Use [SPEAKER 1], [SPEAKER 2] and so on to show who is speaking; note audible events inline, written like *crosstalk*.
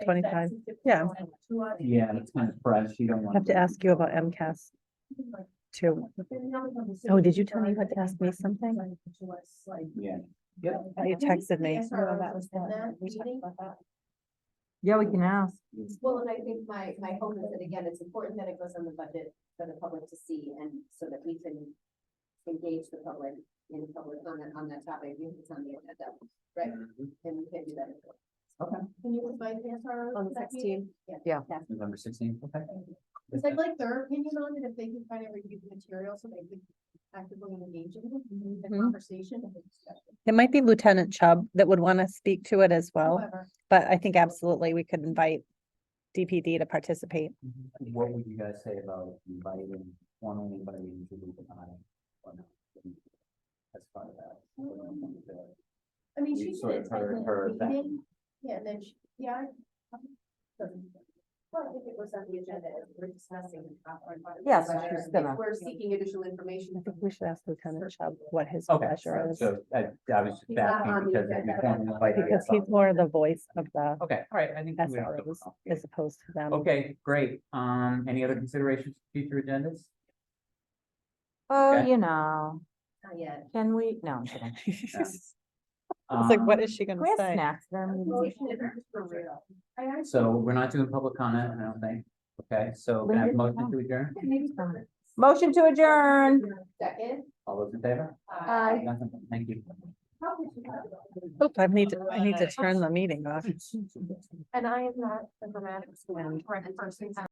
[SPEAKER 1] 25, yeah.
[SPEAKER 2] Yeah, it's kind of fresh. You don't
[SPEAKER 1] I
[SPEAKER 2] want.
[SPEAKER 1] have to ask you about MCAS too. Oh, did you tell me you had to ask me something?
[SPEAKER 2] Yeah. Yep.
[SPEAKER 1] You texted me.
[SPEAKER 3] Yeah, we can ask.
[SPEAKER 4] Well, and I think my, my hope is that again, it's important that it goes on the budget for the public to see and so that we can engage the public in public on that, on that topic, if it's on the agenda, right? And we can do that.
[SPEAKER 2] Okay.
[SPEAKER 4] Can you invite Hansard?
[SPEAKER 3] On the 16th? Yeah.
[SPEAKER 2] November sixteenth, okay.
[SPEAKER 4] Because I'd like their opinion on it, if they can find a review of the material, so they could actively engage in the
[SPEAKER 1] Mhm.
[SPEAKER 4] conversation and the discussion.
[SPEAKER 1] It might be Lieutenant Chubb that would want to speak to it as well,
[SPEAKER 4] However,
[SPEAKER 1] but I think absolutely we could invite DPD to participate.
[SPEAKER 2] What would you guys say about inviting, formally inviting Julie to I or not? As part of that. we don't want to-
[SPEAKER 4] I mean,
[SPEAKER 2] You
[SPEAKER 4] she
[SPEAKER 2] sort
[SPEAKER 4] did
[SPEAKER 2] of
[SPEAKER 4] attend
[SPEAKER 2] heard her
[SPEAKER 4] the
[SPEAKER 2] back.
[SPEAKER 4] meeting, yeah, and then she, yeah. I- um, Well, I think it was on the agenda, as we're discussing. uh, our budget.
[SPEAKER 3] Yes,
[SPEAKER 4] But
[SPEAKER 3] she's
[SPEAKER 4] if
[SPEAKER 3] gonna-
[SPEAKER 4] We're seeking additional information.
[SPEAKER 1] I think we should ask Lieutenant Chubb what his
[SPEAKER 2] Okay,
[SPEAKER 1] pleasure
[SPEAKER 2] so-
[SPEAKER 1] is.
[SPEAKER 2] so I, I
[SPEAKER 4] He's
[SPEAKER 2] was just
[SPEAKER 4] not on
[SPEAKER 2] asking
[SPEAKER 4] the
[SPEAKER 2] because if
[SPEAKER 4] agenda.
[SPEAKER 2] you formally invite her,
[SPEAKER 1] Because
[SPEAKER 2] that's
[SPEAKER 1] he's
[SPEAKER 2] all.
[SPEAKER 1] more the voice of the
[SPEAKER 2] Okay, all right, I think. we don't have to
[SPEAKER 1] SROs
[SPEAKER 2] complicate
[SPEAKER 1] as
[SPEAKER 2] it.
[SPEAKER 1] opposed to them.
[SPEAKER 2] Okay, great. Um, any other considerations for future agendas?
[SPEAKER 3] Oh,
[SPEAKER 2] Okay.
[SPEAKER 3] you know,
[SPEAKER 4] Not yet.
[SPEAKER 3] can we, no, I'm
[SPEAKER 1] *laughs*
[SPEAKER 3] kidding.
[SPEAKER 1] It's like, what
[SPEAKER 2] Um,
[SPEAKER 1] is she gonna
[SPEAKER 3] We have
[SPEAKER 1] say?
[SPEAKER 3] snacks there. maybe.
[SPEAKER 4] Motion is for real. I actually.
[SPEAKER 2] So we're not doing public comment, I don't think. Okay, so can I have a
[SPEAKER 3] Linda's
[SPEAKER 2] motion to adjourn?
[SPEAKER 4] Maybe for-
[SPEAKER 3] Motion to adjourn.
[SPEAKER 4] Second. uh,
[SPEAKER 2] All those in favor?
[SPEAKER 4] Aye.
[SPEAKER 2] Nothing. Thank you.
[SPEAKER 1] Oop, I need to,
[SPEAKER 2] *laughs*
[SPEAKER 1] I need to turn the meeting off.
[SPEAKER 4] And I am not a grammatics man, or a person.